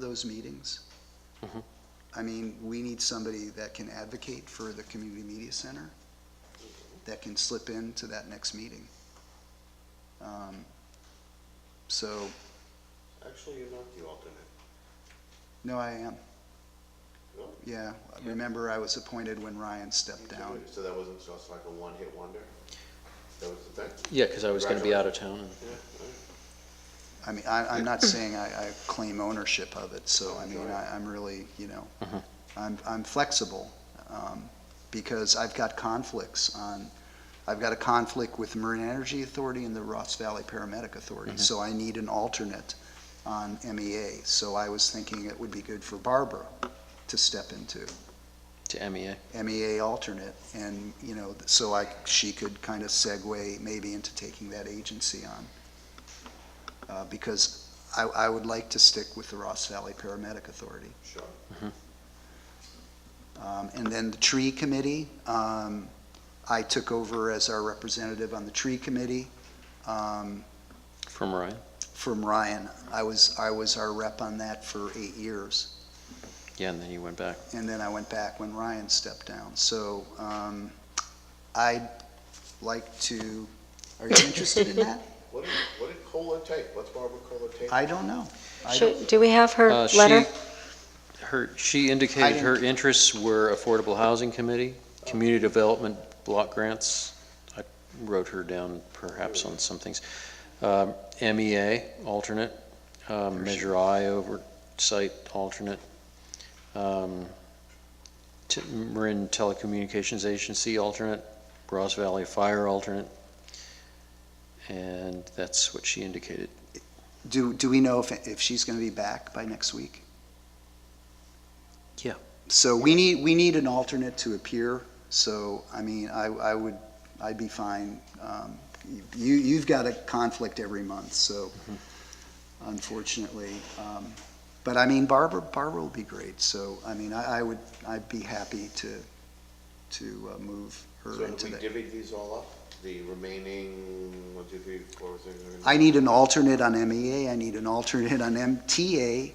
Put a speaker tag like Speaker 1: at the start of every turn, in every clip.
Speaker 1: those meetings. I mean, we need somebody that can advocate for the community media center, that can slip into that next meeting. Um, So,
Speaker 2: Actually, you're not the alternate.
Speaker 1: no, I am.
Speaker 2: No?
Speaker 1: Yeah, remember I was appointed when Ryan stepped down.
Speaker 2: So that wasn't just like a one-hit wonder? That was the thing?
Speaker 3: Yeah, because I was going to be out of town. and-
Speaker 2: Yeah,
Speaker 1: I mean, I, I'm not saying I, I claim ownership of it, so I mean, I, I'm really, you know,
Speaker 3: Mhm.
Speaker 1: I'm, I'm flexible, um, because I've got conflicts on, I've got a conflict with Marine Energy Authority and the Ross Valley Paramedic Authority, so I need an alternate on MEA, so I was thinking it would be good for Barbara to step into.
Speaker 3: to E MEA.
Speaker 1: MEA E alternate, and, you know, so I, she could kind of segue maybe into taking that agency on. Uh, Because I, I would like to stick with the Ross Valley Paramedic Authority.
Speaker 2: sure.
Speaker 1: Um, And then the tree committee, um, I took over as our representative on the tree committee um,
Speaker 3: From Ryan?
Speaker 1: from Ryan. I was, I was our rep on that for eight years.
Speaker 3: Yeah, and then you went back.
Speaker 1: and then I went back when Ryan stepped down. So um, I'd like to, are you interested in that?
Speaker 2: What did, what did Cola take? What's Barbara Cola take?
Speaker 1: I don't know. I don't-
Speaker 4: Should, do we have her
Speaker 3: Uh, she-
Speaker 4: letter?
Speaker 3: Her, she
Speaker 1: I
Speaker 3: indicated
Speaker 1: didn't-
Speaker 3: her interests were Affordable Housing Committee, Community Development Block Grants. I wrote her down perhaps on some things. Um, MEA, alternate, um, Measure I oversight, alternate. um, T- Marin Telecommunications Agency, alternate, Ross Valley Fire, alternate. And that's what she indicated.
Speaker 1: Do, do we know if, if she's going to be back by next week?
Speaker 3: Yeah.
Speaker 1: So we need, we need an alternate to appear, so, I mean, I, I would, I'd be fine. Um, You, you've got a conflict every month, so unfortunately. um, But I mean, Barbara, Barbara will be great, so, I mean, I, I would, I'd be happy to, to uh, move her
Speaker 2: So have
Speaker 1: into
Speaker 2: we
Speaker 1: that.
Speaker 2: divvied these all up? The remaining, one, two, three, four, six, seven,
Speaker 1: I need an alternate on MEA, I need an alternate on MTA,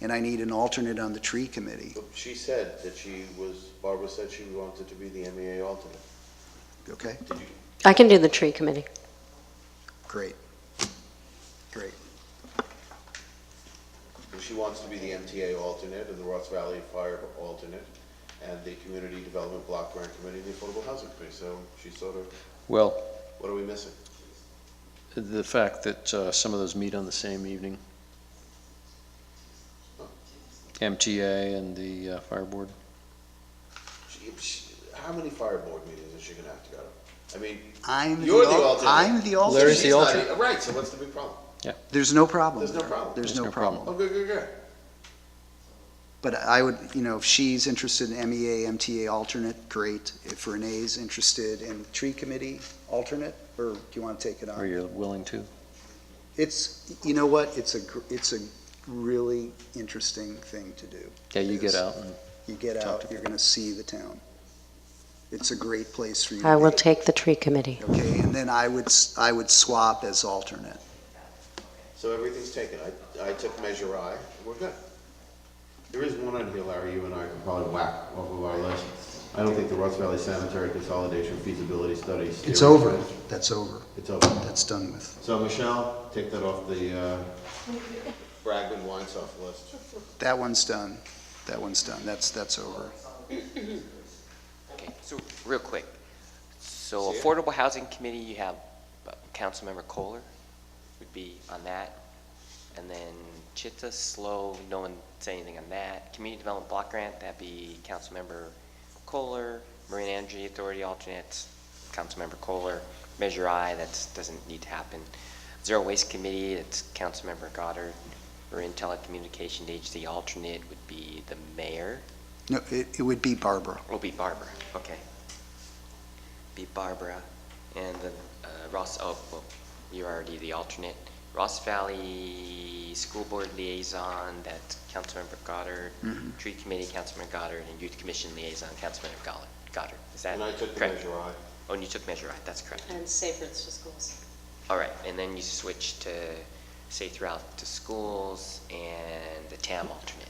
Speaker 1: and I need an alternate on the tree committee.
Speaker 2: eight. She said that she was, Barbara said she wanted to be the MEA alternate.
Speaker 1: Okay,
Speaker 2: Did you,
Speaker 4: I can do the tree committee.
Speaker 1: great, great.
Speaker 2: well, she wants to be the MTA alternate and the Ross Valley Fire alternate and the Community Development Block Grant Committee and the Affordable Housing Committee. So she's sort of,
Speaker 3: Well,
Speaker 2: what are we missing?
Speaker 3: The fact that uh, some of those meet on the same evening. MTA and the uh, fire board.
Speaker 2: She- she- How many fire board meetings is she gonna have to go to? I mean,
Speaker 1: I'm
Speaker 2: You're the
Speaker 1: al-
Speaker 2: alternate.
Speaker 1: I'm the alternate.
Speaker 3: Larry's the
Speaker 2: She's not
Speaker 3: alternate.
Speaker 2: e- Right, so what's the big problem?
Speaker 1: There's no problem.
Speaker 2: There's no problem.
Speaker 1: There's
Speaker 3: There's
Speaker 1: no
Speaker 3: no problem.
Speaker 2: Oh,
Speaker 1: problem.
Speaker 2: good, good, good.
Speaker 1: But I would, you know, if she's interested in E MEA, MTA alternate, great. If Renee's interested in tree committee alternate, or do you want to take it
Speaker 3: Are
Speaker 1: on?
Speaker 3: you willing to?
Speaker 1: It's, you know what, it's a, gr- it's a really interesting thing to do.
Speaker 3: Yeah, you
Speaker 1: Yes.
Speaker 3: get out and
Speaker 1: You get
Speaker 3: Talk
Speaker 1: out,
Speaker 3: to
Speaker 1: you're going to see the town. It's a great place for you to
Speaker 4: I will
Speaker 1: be.
Speaker 4: take the tree committee.
Speaker 1: Okay, and then I would, s- I would swap as alternate.
Speaker 2: So everything's taken. I, I took measure I, we're good. There is one on here, Larry, you and I can probably whack off of our list. I don't think the Ross Valley Sanitary Consolidation Feasibility Study.
Speaker 1: It's over, that's over,
Speaker 2: It's over.
Speaker 1: that's done with.
Speaker 2: So Michelle, take that off the, uh, Bragman Wine Soft list.
Speaker 1: That one's done, that one's done, that's, that's over.
Speaker 5: Okay, so, real quick, so Affordable Housing Committee, you have uh, Councilmember Kohler would be on that, and then Chitta, Slow, no one said anything on that. Community Development Block Grant, that'd be Councilmember Kohler, Marine Energy Authority alternate, Councilmember Kohler, Measure I, that doesn't need to happen. Zero Waste Committee, it's Councilmember Goddard, Marine Telecommunication Agency alternate would be the mayor.
Speaker 1: No, it, it would be Barbara.
Speaker 5: Will be Barbara, okay. Be Barbara, and then uh, Ross, oh, well, you're already the alternate. Ross Valley School Board Liaison, that's Councilmember Goddard.
Speaker 1: Mm-hmm.
Speaker 5: Tree Committee, Councilmember Goddard, and Youth Commission Liaison, Councilmember Goll- Goddard. Is that
Speaker 2: And I
Speaker 5: correct?
Speaker 2: took the measure I.
Speaker 5: Oh, and you took Measure I, that's correct.
Speaker 6: And safe routes to schools.
Speaker 5: All right, and then you switch to Safe Route to Schools, and the TAM alternate.